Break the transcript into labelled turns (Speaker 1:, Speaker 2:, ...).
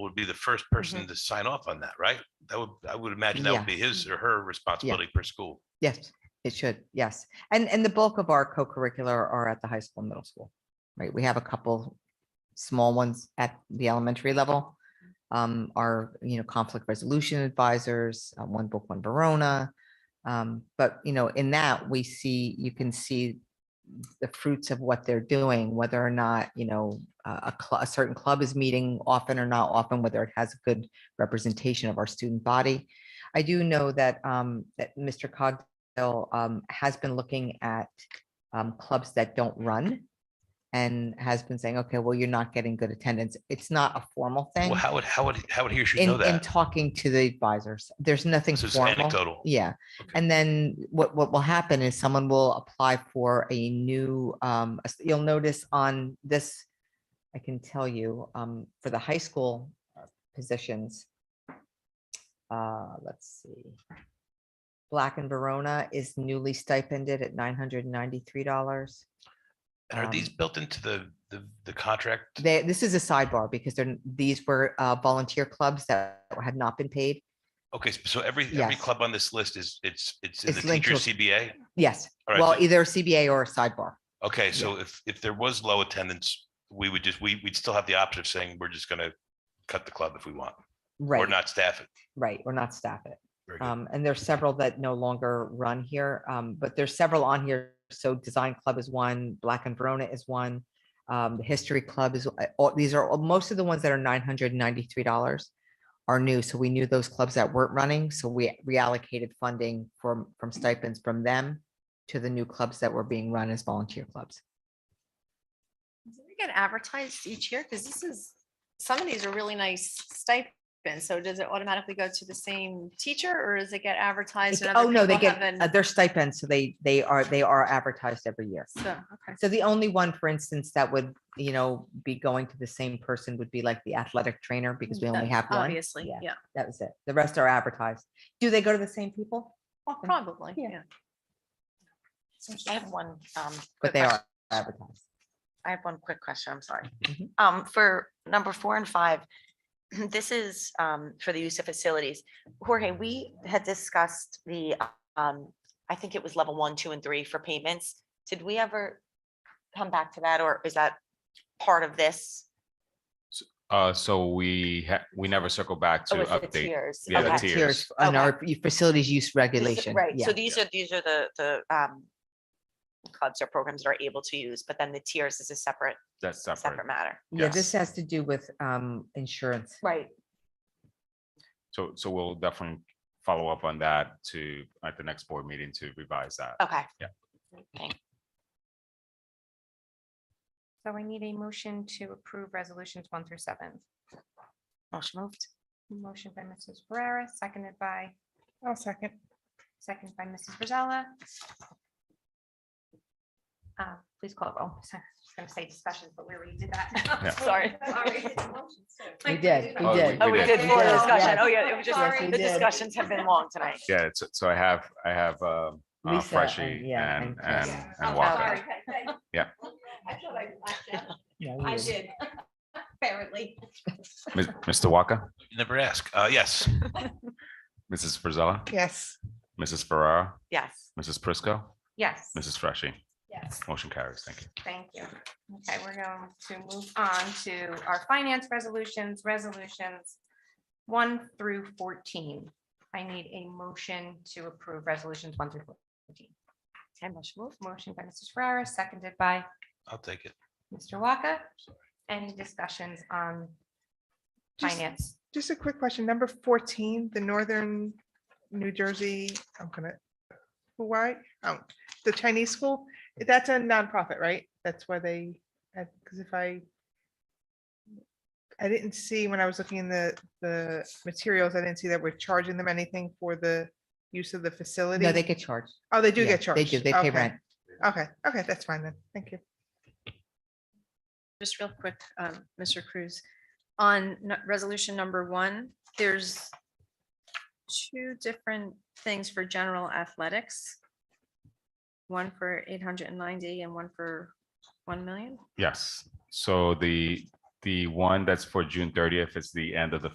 Speaker 1: would be the first person to sign off on that, right? That would, I would imagine that
Speaker 2: Mm-hmm. Yeah.
Speaker 1: would be his or her responsibility per school.
Speaker 2: Yes, it should. Yes. And, and the bulk of our co-curricular are at the high school, and middle school, right? We have a couple small ones at the elementary level. Um, our, you know, conflict resolution advisors, uh, one book, one Verona. Um, but you know, in that we see, you can see the fruits of what they're doing, whether or not, you know, uh, a, a cl- a certain club is meeting often or not often, whether it has a good representation of our student body. I do know that, um, that Mr. Cogdill, um, has been looking at, um, clubs that don't run. And has been saying, okay, well, you're not getting good attendance. It's not a formal thing.
Speaker 1: Well, how would, how would, how would he or she know
Speaker 2: In, in
Speaker 1: that?
Speaker 2: talking to the advisors, there's nothing
Speaker 1: This is
Speaker 2: formal.
Speaker 1: anecdotal.
Speaker 2: Yeah,
Speaker 1: Okay.
Speaker 2: and then what, what will happen is someone will apply for a new, um, as- you'll notice on this, I can tell you, um, for the high school uh, positions. Uh, let's see. Black and Verona is newly stipended at nine hundred and ninety-three dollars.
Speaker 1: And are these
Speaker 2: um,
Speaker 1: built into the, the, the contract?
Speaker 2: They, this is a sidebar because they're, these were, uh, volunteer clubs that had not been paid.
Speaker 1: Okay, so every, every
Speaker 2: Yes.
Speaker 1: club on this list is, it's, it's in
Speaker 2: It's
Speaker 1: the
Speaker 2: linked to
Speaker 1: teacher's CBA?
Speaker 2: Yes,
Speaker 1: All right,
Speaker 2: well,
Speaker 1: so-
Speaker 2: either a CBA or a sidebar.
Speaker 1: Okay, so if, if there was low attendance, we would just, we, we'd still have the option of saying, we're just gonna cut the club if we want, or
Speaker 2: Right,
Speaker 1: not staff it.
Speaker 2: right, or not staff it.
Speaker 1: Very good.
Speaker 2: Um, and there's several that no longer run here, um, but there's several on here. So Design Club is one, Black and Verona is one. Um, the History Club is, uh, all, these are, all- most of the ones that are nine hundred and ninety-three dollars are new. So we knew those clubs that weren't running, so we reallocated funding from, from stipends from them to the new clubs that were being run as volunteer clubs.
Speaker 3: Do they get advertised each year? Because this is, some of these are really nice stipends. So does it automatically go to the same teacher or does it get advertised?
Speaker 2: It's-
Speaker 3: and other
Speaker 2: Oh, no, they
Speaker 3: people
Speaker 2: get,
Speaker 3: haven't-
Speaker 2: uh, their stipends, so they, they are, they are advertised every year.
Speaker 3: So, okay.
Speaker 2: So the only one, for instance, that would, you know, be going to the same person would be like the athletic trainer because we only
Speaker 3: That-
Speaker 2: have one.
Speaker 3: Obviously, yeah,
Speaker 2: That was it. The rest are advertised. Do they go to the same people? Often,
Speaker 3: probably,
Speaker 2: Yeah.
Speaker 3: yeah. I have one. um,
Speaker 2: but
Speaker 3: quick
Speaker 2: they
Speaker 3: question.
Speaker 2: are advertised.
Speaker 3: I have one quick question, I'm sorry.
Speaker 2: Mhm.
Speaker 3: Um, for number four and five, this is, um, for the use of facilities. Jorge, we had discussed the, um, I think it was level one, two, and three for payments. Did we ever come back to that, or is that part of this?
Speaker 4: Uh, so we ha- we never circle back
Speaker 2: Oh,
Speaker 4: to
Speaker 3: Or is it
Speaker 4: update.
Speaker 3: tiers?
Speaker 4: Yeah, the
Speaker 3: Okay.
Speaker 2: Other
Speaker 4: tiers.
Speaker 2: tiers On
Speaker 3: Okay.
Speaker 2: our f- facilities use
Speaker 3: This-
Speaker 2: regulation.
Speaker 3: Right,
Speaker 2: Yeah.
Speaker 3: so these are, these are the, the, um, clubs or programs that are able to use, but then the tiers is a separate,
Speaker 4: That's separate.
Speaker 3: separate matter.
Speaker 2: Yeah,
Speaker 4: yes.
Speaker 2: this has to do with um insurance.
Speaker 3: Right.
Speaker 4: So, so we'll definitely follow up on that to, at the next board meeting to revise that.
Speaker 3: Okay.
Speaker 4: Yeah.
Speaker 3: Thank-
Speaker 5: So I need a motion to approve resolutions one through seven.
Speaker 3: Motion moved.
Speaker 5: Motion by Mrs. Ferrera, seconded by. Oh, second. Seconded by Mrs. Rosella. Uh, Please call a roll. So I was gonna say discussions, but we already did
Speaker 4: Yeah.
Speaker 5: that.
Speaker 3: Sorry.
Speaker 5: Sorry. I
Speaker 2: We did, we
Speaker 4: Oh,
Speaker 2: did.
Speaker 3: Oh, we
Speaker 4: did.
Speaker 3: did
Speaker 2: We
Speaker 3: for
Speaker 2: did,
Speaker 3: discussion.
Speaker 2: yes.
Speaker 3: Oh, yeah, it was
Speaker 5: Yes,
Speaker 3: just,
Speaker 5: we
Speaker 3: the
Speaker 2: did.
Speaker 3: discussions have been long tonight.
Speaker 4: Yeah, so, so I have, I have, um, uh,
Speaker 2: Lisa and-
Speaker 4: Freshy
Speaker 2: yeah,
Speaker 4: and,
Speaker 2: and Chris.
Speaker 4: and, and
Speaker 3: Oh,
Speaker 4: Walker.
Speaker 3: sorry.
Speaker 4: Yeah.
Speaker 5: I thought I
Speaker 2: Yeah, we
Speaker 5: I
Speaker 2: did.
Speaker 5: did, apparently.
Speaker 4: Mis- Mr. Walker,
Speaker 1: You Never ask. Uh, yes,
Speaker 4: Mrs. Frizella,
Speaker 5: Yes.
Speaker 4: Mrs. Ferrara,
Speaker 3: Yes.
Speaker 4: Mrs. Prisco,
Speaker 5: Yes.
Speaker 4: Mrs. Freshy.
Speaker 5: Yes.
Speaker 4: Motion carries. Thank you.
Speaker 5: Thank you. Okay, we're going to move on to our finance resolutions, resolutions one through fourteen. I need a motion to approve resolutions one through fourteen.
Speaker 3: Okay, motion moved.
Speaker 5: Motion by Mrs. Ferrara, seconded by
Speaker 1: I'll take it.
Speaker 5: Mr. Waka. Any discussions on
Speaker 6: Just-
Speaker 5: finance?
Speaker 6: Just a quick question. Number fourteen, the Northern New Jersey, I'm gonna, Hawaii, oh, the Chinese school, that's a nonprofit, right? That's where they, because if I I didn't see when I was looking in the, the materials, I didn't see that we're charging them anything for the use of the facility.
Speaker 2: No, they get charged.
Speaker 6: Oh, they do
Speaker 2: Yeah,
Speaker 6: get charged.
Speaker 2: They do, they pay
Speaker 6: Okay,
Speaker 2: rent.
Speaker 6: Okay, okay, that's fine then. Thank you.
Speaker 7: just real quick, um, Mr. Cruz, on n- resolution number one, there's two different things for general athletics. One for eight hundred and ninety and one for one million.
Speaker 4: Yes, so the, The one that's for June thirtieth is the end of the